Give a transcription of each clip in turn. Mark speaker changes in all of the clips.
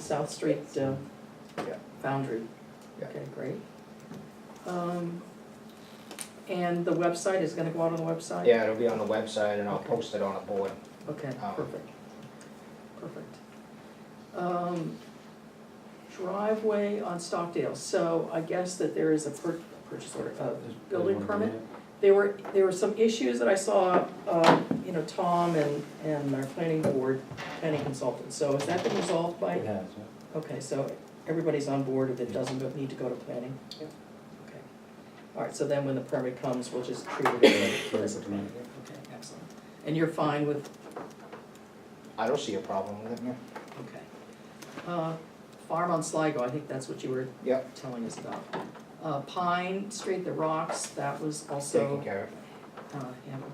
Speaker 1: South Street uh,
Speaker 2: Yeah.
Speaker 1: Foundry.
Speaker 2: Yeah.
Speaker 1: Okay, great. Um, And the website is gonna go out on the website?
Speaker 2: Yeah, it'll be on the website and I'll
Speaker 1: Okay.
Speaker 2: post it on a board.
Speaker 1: Okay,
Speaker 2: Um,
Speaker 1: perfect. Perfect. Um, Driveway on Stockdale, so I guess that there is a pur- purchase order, uh, building permit? There were, there were some issues that I saw, uh, you know, Tom and, and our planning board, planning consultant, so has that been resolved by?
Speaker 3: It has, yeah.
Speaker 1: Okay, so everybody's on board if it doesn't go- need to go to planning?
Speaker 2: Yep.
Speaker 1: Okay. All right, so then when the permit comes, we'll just treat it
Speaker 3: Sure,
Speaker 1: as a
Speaker 3: it's not.
Speaker 1: permit. Okay, excellent. And you're fine with,
Speaker 2: I don't see a problem with it, no.
Speaker 1: okay. Uh, Farm on Sligo, I think that's what you were
Speaker 2: Yep,
Speaker 1: telling us about. Uh, Pine Street, the rocks, that was
Speaker 2: taken
Speaker 1: also
Speaker 2: care
Speaker 1: uh, handled.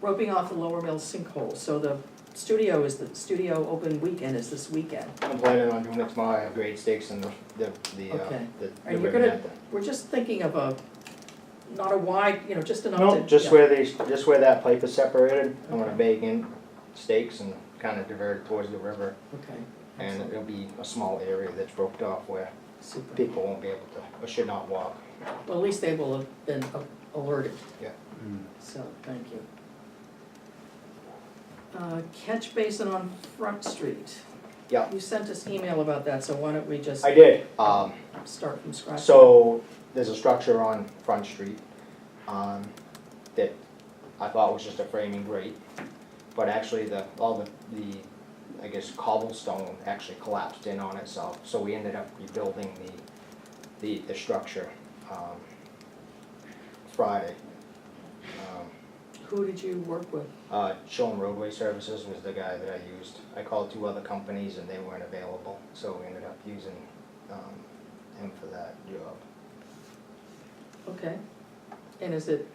Speaker 1: Roping off the Lower Mill sinkhole, so the studio is, the studio open weekend is this weekend.
Speaker 2: of. I'm planning on doing it tomorrow, I have grade stakes and the, the, the, uh,
Speaker 1: Okay.
Speaker 2: the-
Speaker 1: Are
Speaker 2: the
Speaker 1: you
Speaker 2: ribbon
Speaker 1: gonna-
Speaker 2: at the.
Speaker 1: We're just thinking of a, not a wide, you know, just enough to.
Speaker 2: No, just
Speaker 1: yeah.
Speaker 2: where they, just where that pipe is separated, I'm gonna
Speaker 1: Okay.
Speaker 2: bake in stakes and kind of divert it towards the river.
Speaker 1: Okay.
Speaker 2: And
Speaker 1: excellent.
Speaker 2: it'll be a small area that's roped off where
Speaker 1: Super.
Speaker 2: people won't be able to, or should not walk.
Speaker 1: Well, at least they will have been a- alerted,
Speaker 3: Mm.
Speaker 1: so thank you. Uh, Catch basin on Front Street.
Speaker 2: Yeah.
Speaker 1: You sent us email about that, so why don't we just
Speaker 2: I did, um,
Speaker 1: start from scratch?
Speaker 2: So, there's a structure on Front Street, um, that I thought was just a framing grate, but actually the, all the, the, I guess cobblestone actually collapsed in on itself, so we ended up rebuilding the, the, the structure, um, Friday. Um,
Speaker 1: Who did you work with?
Speaker 2: Uh, Shoal Roadway Services was the guy that I used, I called two other companies and they weren't available, so we ended up using, um, him for that job.
Speaker 1: Okay. And is it?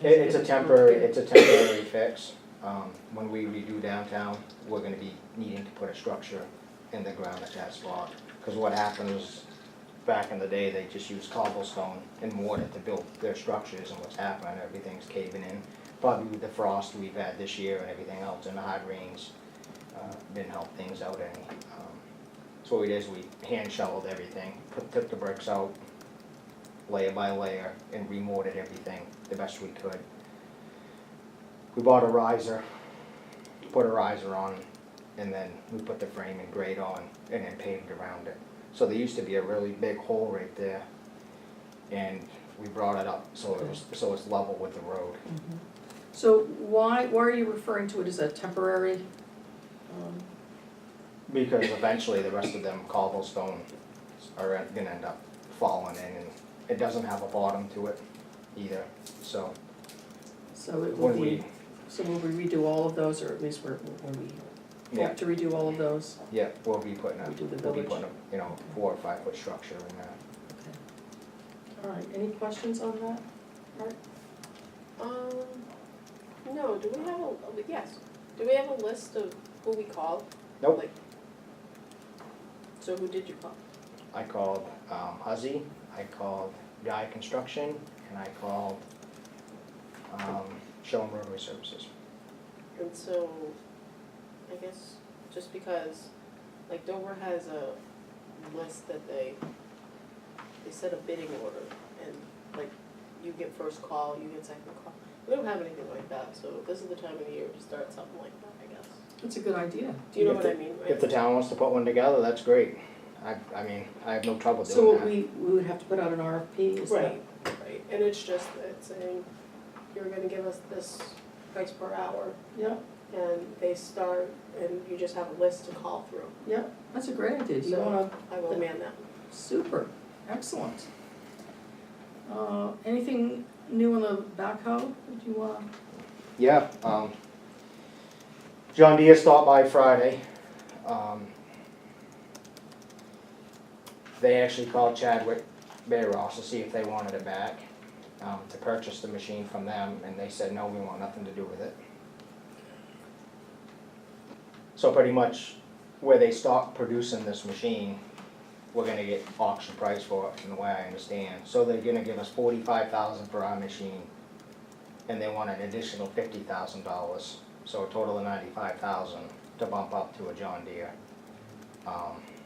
Speaker 2: It, it's
Speaker 1: is
Speaker 2: a
Speaker 1: it-
Speaker 2: temporary, it's a temporary fix. Um, when we redo downtown, we're gonna be needing to put a structure in the ground at that spot. Cause what happened was, back in the day, they just used cobblestone and mortar to build their structures and what's happening, everything's caving in. Probably with the frost we've had this year and everything else and the hard rains, uh, didn't help things out any. Um, So what we did is we hand shoveled everything, put, took the bricks out, layer by layer and remortared everything the best we could. We bought a riser, put a riser on, and then we put the frame and grate on and then paved around it. So there used to be a really big hole right there. And we brought it up so it was, so it's level with the road.
Speaker 1: Mhm. So why, why are you referring to it as a temporary? um,
Speaker 2: Because eventually the rest of them cobblestone are gonna end up falling in and it doesn't have a bottom to it either. So
Speaker 1: So it will
Speaker 2: when we,
Speaker 1: be, so will we redo all of those, or at least we're, when we
Speaker 2: yeah.
Speaker 1: hope to redo all of those?
Speaker 2: Yeah, we'll be putting a,
Speaker 1: We do the
Speaker 2: we'll be
Speaker 1: village.
Speaker 2: putting a, you know, four or five foot structure in there.
Speaker 1: All right, any questions on that?
Speaker 4: Um, no, do we have a, yes, do we have a list of who we called?
Speaker 2: Nope.
Speaker 4: Like, So who did you call?
Speaker 2: I called, um, Huzzy, I called Guy Construction, and I called, um, Show 'em Roadway Services.
Speaker 4: And so, I guess, just because, like Dover has a list that they, they set a bidding order and like you get first call, you get second call. We don't have anything like that, so this is the time of the year to start something like that, I guess.
Speaker 1: That's a good idea.
Speaker 4: Do you know
Speaker 2: If
Speaker 4: what
Speaker 2: the-
Speaker 4: I mean, right?
Speaker 2: If the town wants to put one together, that's great. I, I mean, I have no trouble
Speaker 1: So
Speaker 2: doing
Speaker 1: what
Speaker 2: that.
Speaker 1: we, we would have to put out an RFP, is that?
Speaker 4: Right, right, and it's just, it's saying, you're gonna give us this price per hour,
Speaker 1: Yeah,
Speaker 4: and they start, and you just have a list to call through.
Speaker 1: yeah, that's a great idea, do you
Speaker 4: So-
Speaker 1: wanna,
Speaker 4: I will man that.
Speaker 1: super, excellent. Uh, anything new on the backhoe that you wanna,
Speaker 2: Yeah, um, John Deere stopped by Friday. Um, They actually called Chadwick Bear Ross to see if they wanted it back, um, to purchase the machine from them, and they said, no, we want nothing to do with it. So pretty much where they stop producing this machine, we're gonna get auction price for it, from the way I understand. So they're gonna give us forty-five thousand for our machine, and they want an additional fifty thousand dollars, so a total of ninety-five thousand to bump up to a John Deere. Um,